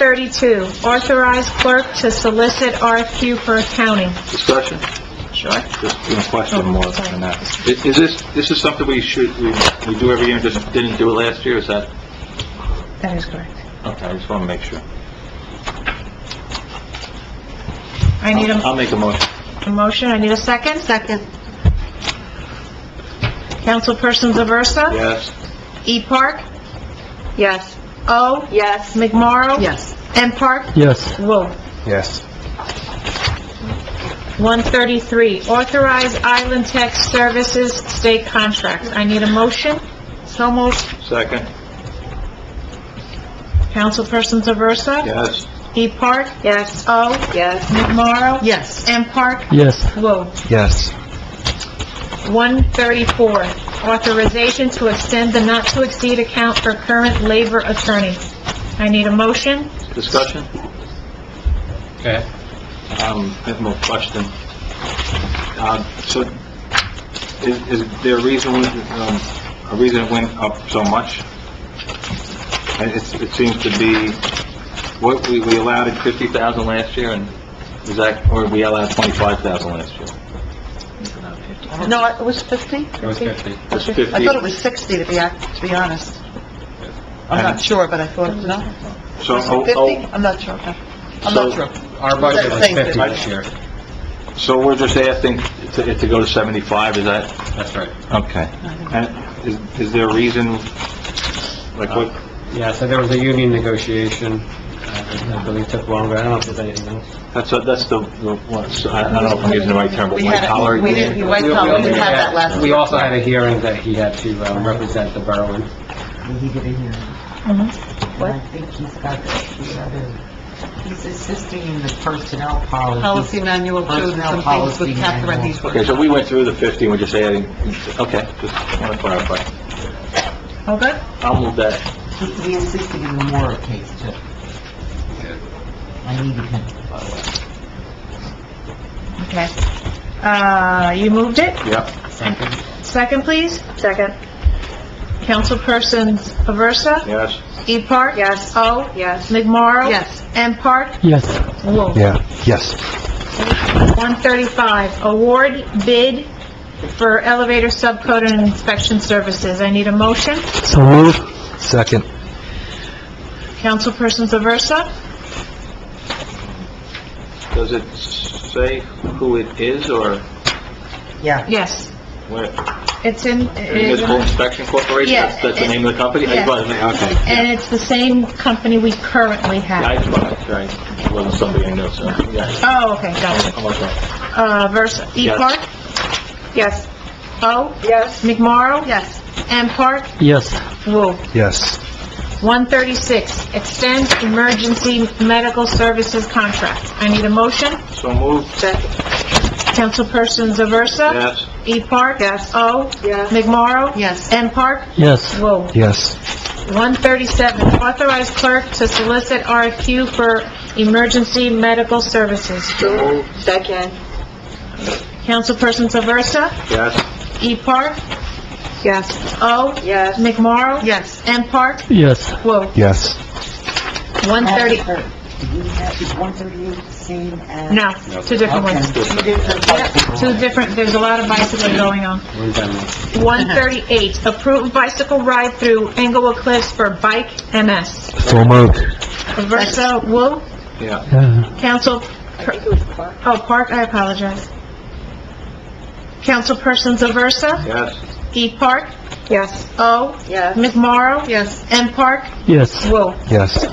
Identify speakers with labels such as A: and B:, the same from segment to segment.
A: 132, authorize clerk to solicit RFQ for accounting.
B: Discussion?
A: Sure. Oh,
B: Just one question more than that. Is is this, this is something we should, we we do every year, and just didn't do it last year, is that?
A: That is correct.
B: Okay, I just want to make sure.
A: I need a
B: I'll make a motion.
A: a motion, I need a second? Second. Councilperson Zaversa?
B: Yes.
A: E. Park?
C: Yes.
A: O.
C: Yes.
A: McMorro?
C: Yes.
A: M. Park?
D: Yes.
A: Whoa.
D: Yes.
A: 133, authorize Island Tech Services state contract. I need a motion? So moved.
B: Second?
A: Councilperson Zaversa?
B: Yes.
A: E. Park?
C: Yes.
A: O.
C: Yes.
A: McMorro?
C: Yes.
A: M. Park?
D: Yes.
A: Whoa.
D: Yes.
A: 134, authorization to extend the not-to-exceed account for current labor attorney. I need a motion?
B: Discussion? Okay. Um, I have more question. Uh, so, is, is there a reason, we- um, a reason it went up so much? And it's, it seems to be, what, we, we allowed it fifty thousand last year, and is that, or we allowed twenty-five thousand last year?
C: No, it was 50?
B: It was fifty. It was fifty.
C: I thought it was 60, to be, ac- to be honest. I'm not sure, but I thought, no?
B: So,
C: Was it
B: oh,
C: 50?
B: oh,
C: I'm not sure. okay. I'm
B: So-
C: not sure.
E: Our budget was
C: Thank you.
E: 50 this year.
B: oh, so we're just asking to, to go to seventy-five, is that?
E: That's right.
B: Okay. And is, is there a reason, like what,
E: Yeah, so there was a union negotiation, uh, I believe took longer. I don't know if there's anything else.
B: that's, a- that's the, the one- so I I don't know if I'm using the right term, but
C: We
B: white
C: had,
B: collar?
C: it- we didn't, we white collar, we didn't have that last
E: We
C: week.
E: also had a hearing that he had to um, represent the borough in.
F: He did a hearing.
A: Mhm.
F: And I think he's got the, he's got a, he's assisting in the personnel policy.
C: Policy manual, too, and some things with Catherine, these were...
B: Okay, so we went through the 50, we're just adding, okay, just want to clarify.
A: All good?
B: I'll move that.
F: He, he assisted in the Mora case, too. I needed him.
A: Okay. Uh, you moved it?
B: Yep.
A: Second, please?
C: Second.
A: Councilperson Aversa?
B: Yes.
A: E. Park?
C: Yes.
A: O.
C: Yes.
A: McMorro?
C: Yes.
A: M. Park?
D: Yes.
A: Whoa.
D: Yeah. Yes.
A: 135, award bid for elevator subcode and inspection services. I need a motion?
D: So move. Second.
A: Councilperson Zaversa?
B: Does it say who it is or
F: Yeah.
A: Yes.
B: where?
A: It's in... it is in-
B: Municipal Inspection Corporation?
A: Yeah.
B: That's that's the name of the company? I just wanted to make- Okay.
A: And it's the same company we currently
B: Yeah, I
A: have.
B: just wanted, to- right, it wasn't somebody I know, so, yeah.
A: Oh, okay, gotcha.
B: I'm okay.
A: Uh, Versa, E.
B: Yes.
A: Park? Yes. O.
C: Yes.
A: McMorro?
C: Yes.
A: M. Park?
D: Yes.
A: Whoa.
D: Yes.
A: 136, extend emergency medical services contract. I need a motion.
B: So moved?
C: Second.
A: Councilperson Zaversa?
B: Yes.
A: E. Park? Yes. O.
C: Yes.
A: McMorro?
C: Yes.
A: M. Park?
D: Yes.
A: Whoa.
D: Yes.
A: 137, authorize clerk to solicit RFQ for emergency medical services.
C: Second.
A: Councilperson Zaversa?
B: Yes.
A: E. Park?
C: Yes.
A: O.
C: Yes.
A: McMorro?
C: Yes.
A: M. Park?
D: Yes.
A: Whoa.
D: Yes.
A: 130,
F: Did he have, is one thirty-eight the same as?
A: no, two different ones.
F: Okay, two different
A: Yep,
F: bicycles.
A: Two different, there's a lot of bicycling going on.
E: We're in Denver.
A: 138, approved bicycle ride through Englewood Cliffs for Bike MS.
D: So move.
A: Versa, Wu,
B: Yeah.
D: Yeah.
A: Council, oh, Park, I apologize. Councilpersons Aversa,
B: Yes.
A: E. Park,
C: Yes.
A: O.
C: Yes.
A: McMorro,
C: Yes.
A: M. Park,
D: Yes.
A: Wu.
D: Yes.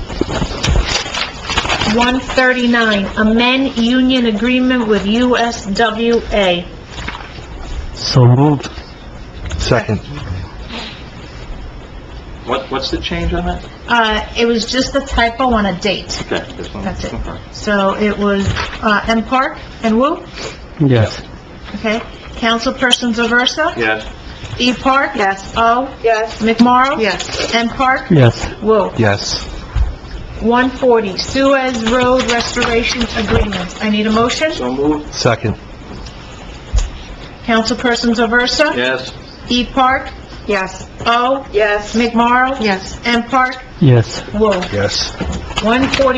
A: 139, amend union agreement with USWA.
D: So moved. Second.
B: What, what's the change on that?
A: Uh, it was just a typo on a date,
B: Okay, this one.
A: That's it.
B: Okay.
A: so it was, uh, M. Park and Wu,
D: Yes.
A: okay? Councilpersons Aversa,
B: Yes.
A: E. Park, yes, O.
C: Yes.
A: McMorro?
C: Yes.
A: M. Park?
D: Yes.
A: Whoa.
D: Yes.
A: 140, Suez Road Restoration Agreement. I need a motion.
B: So moved?
D: Second.
A: Councilperson Zaversa?
B: Yes.
A: E. Park?
C: Yes.
A: O.
C: Yes.
A: McMorro?
C: Yes.
A: M. Park?
B: Yes.
A: Wolf,
B: Yes.
A: 140